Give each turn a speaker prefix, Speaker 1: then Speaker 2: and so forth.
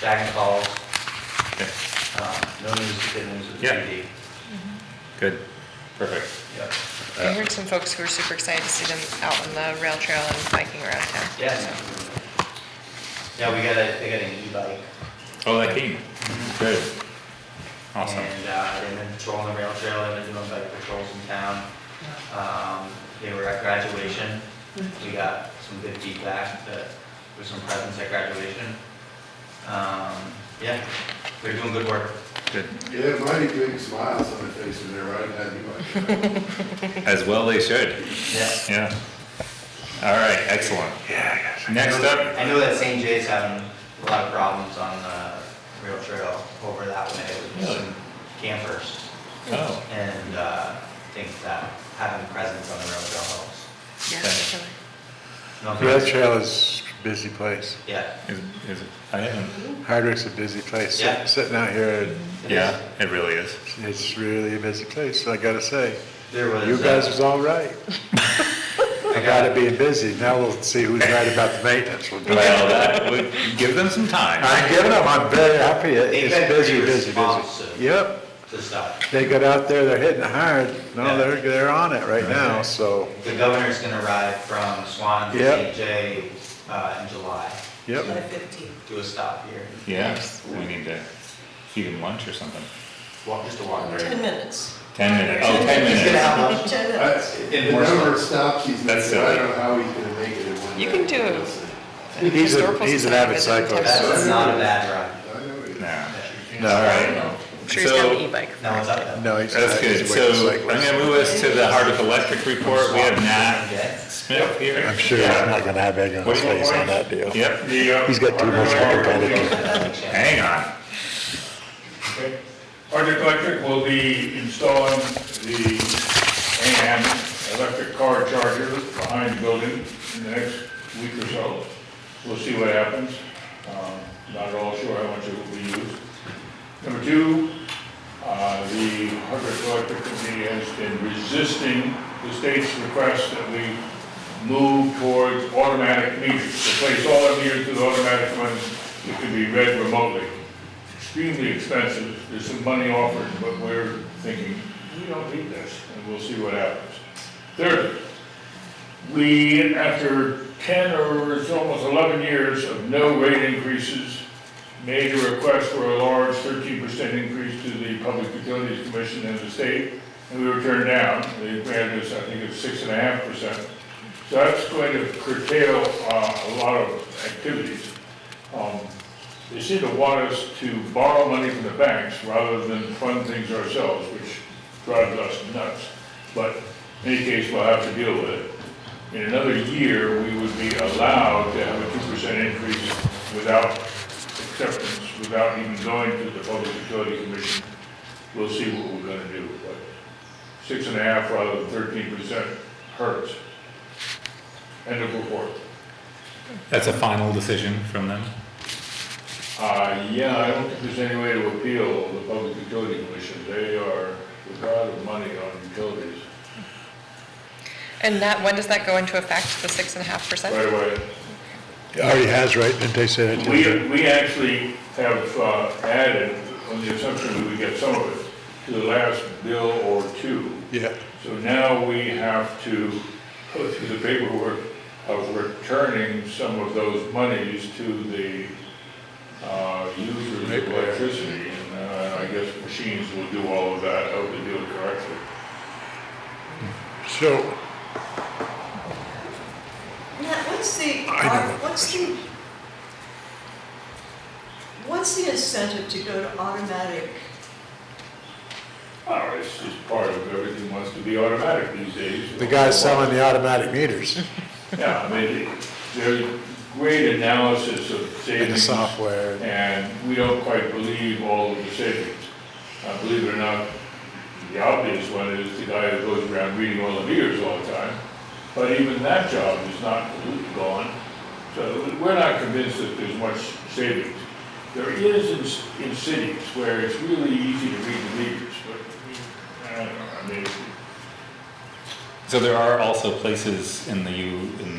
Speaker 1: back and calls.
Speaker 2: Okay.
Speaker 1: Um, No news, is good news with the
Speaker 2: Yeah.
Speaker 1: PD.
Speaker 2: Good, perfect. Uh,
Speaker 1: Yep.
Speaker 3: I heard some folks who were super excited to see them out on the rail trail and biking around town.
Speaker 1: Yeah. Yeah, we got a, they got an e-bike.
Speaker 2: Oh, that came, good. Awesome,
Speaker 1: And uh, they've been patrolling the rail trail, they've been doing bike patrols in town. Um, They were at graduation, we got some good feedback that there's some presence at graduation. Um, Yeah, they're doing good work.
Speaker 2: good.
Speaker 4: Yeah, mighty big smiles on their faces there, right? Had you like,
Speaker 2: As well they should,
Speaker 1: Yeah.
Speaker 2: yeah. All right, excellent. Yeah. Next up,
Speaker 1: I know that St. J's having a lot of problems on the rail trail over that way with
Speaker 2: Really?
Speaker 1: some campers.
Speaker 2: oh,
Speaker 1: And uh, I think that having presence on the rail trail helps.
Speaker 3: Yeah,
Speaker 2: Okay.
Speaker 3: really.
Speaker 1: No
Speaker 5: Rail
Speaker 1: offense.
Speaker 5: Trail is a busy place.
Speaker 1: Yeah.
Speaker 2: is, is, I haven't,
Speaker 5: Hardwick's a busy place. Sit-
Speaker 1: Yeah.
Speaker 5: Sitting out here,
Speaker 1: It
Speaker 2: yeah,
Speaker 1: is.
Speaker 2: it really is.
Speaker 5: it's really a busy place, I gotta say.
Speaker 1: There was.
Speaker 5: You
Speaker 1: uh,
Speaker 5: guys was all right
Speaker 1: I
Speaker 5: about
Speaker 1: got,
Speaker 5: it being busy. Now we'll see who's right about the maintenance. We'll do it.
Speaker 2: Well, that would, give them some time.
Speaker 5: I'm giving them, I'm very happy. It-
Speaker 1: They've
Speaker 5: It's
Speaker 1: been
Speaker 5: busy,
Speaker 1: pretty
Speaker 5: busy,
Speaker 1: responsive.
Speaker 5: busy. Yep,
Speaker 1: the stuff.
Speaker 5: they got out there, they're hitting hard.
Speaker 1: Yeah.
Speaker 5: No, they're, they're on it right now,
Speaker 2: Right.
Speaker 5: so,
Speaker 1: The governor's gonna ride from Swan to St.
Speaker 5: Yep.
Speaker 1: J uh, in July,
Speaker 5: yep.
Speaker 1: do a stop here,
Speaker 2: Yeah, we need to feed them lunch or something.
Speaker 1: walk, just a walk.
Speaker 6: Ten minutes.
Speaker 2: Ten minutes, oh, ten
Speaker 1: He's gonna
Speaker 2: minutes.
Speaker 1: have lunch.
Speaker 6: Ten
Speaker 4: I-
Speaker 6: minutes.
Speaker 4: The number of stops he's
Speaker 2: That's
Speaker 4: making, I
Speaker 2: silly.
Speaker 4: don't know how he's gonna make it in one day.
Speaker 3: You can do it.
Speaker 5: He's a,
Speaker 3: Historical
Speaker 5: he's an
Speaker 3: Society
Speaker 5: avid
Speaker 3: visit in
Speaker 5: cyclist.
Speaker 1: That's not a bad ride.
Speaker 4: I know it.
Speaker 2: Nah.
Speaker 5: No,
Speaker 2: All
Speaker 5: all right.
Speaker 2: right.
Speaker 3: I'm sure he's got an
Speaker 2: So-
Speaker 3: e-bike.
Speaker 1: Now it's up though.
Speaker 5: No, he's not.
Speaker 2: That's good.
Speaker 5: He's a wicked
Speaker 2: So I'm
Speaker 5: cyclist.
Speaker 2: gonna move us to the Hardwick Electric report. We
Speaker 1: Swan
Speaker 2: have
Speaker 1: to
Speaker 2: Nat
Speaker 1: St. J.
Speaker 2: Smith here.
Speaker 5: I'm sure he's not gonna have egg on his face on that deal.
Speaker 2: Yep,
Speaker 5: He's got too much competitive.
Speaker 2: hang on.
Speaker 7: Okay. Arctic Electric will be installing the AM electric car charger behind the building in the next week or so. We'll see what happens. Um, Not at all sure how much it will be used. Number two, uh, the Arctic Electric Committee has been resisting the state's request that we move towards automatic meters, replace all our meters with automatic ones that can be read remotely extremely expensive, there's some money offered, but we're thinking, we don't need this, and we'll see what happens. Third, we, after ten or it's almost eleven years of no rate increases, made a request for a large thirteen percent increase to the Public Utilities Commission and the state, and we were turned down, they granted us, I think it's six and a half percent. So that's going to curtail, uh, a lot of activities. Um, they seem to want us to borrow money from the banks rather than fund things ourselves, which drives us nuts. But in any case, we'll have to deal with it. In another year, we would be allowed to have a two percent increase without acceptance, without even going to the Public Utility Commission. We'll see what we're gonna do, but six and a half rather than thirteen percent hurts. End of report.
Speaker 2: That's a final decision from them.
Speaker 7: Uh, yeah, I don't think there's any way to appeal the Public Utility Commission. They are the god of money on utilities.
Speaker 3: And that, when does that go into effect, the six and a half percent?
Speaker 7: Right away,
Speaker 5: It Already has, right? Didn't they say that? to you?
Speaker 7: we, we actually have uh, added, on the assumption that we get some of it, to the last bill or two.
Speaker 5: Yeah,
Speaker 7: So now we have to go through the paperwork of returning some of those monies to the uh, users of electricity. And uh, I guess machines will do all of that, I hope they do it correctly.
Speaker 5: so
Speaker 6: Now, what's the, uh,
Speaker 5: I know.
Speaker 6: what's the, what's the incentive to go to automatic?
Speaker 7: Oh, it's just part of everything wants to be automatic these days.
Speaker 5: the guy selling the automatic meters
Speaker 7: Yeah, I mean, there's great analysis of
Speaker 5: and the
Speaker 7: savings.
Speaker 5: software.
Speaker 7: And we don't quite believe all of the savings. Uh, believe it or not, the obvious one is the guy who goes around reading all the meters all the time. But even that job is not completely gone. So we're not convinced that there's much savings. There is in, in cities where it's really easy to read the meters, but I don't know, I mean,
Speaker 2: So there are also places in the U, in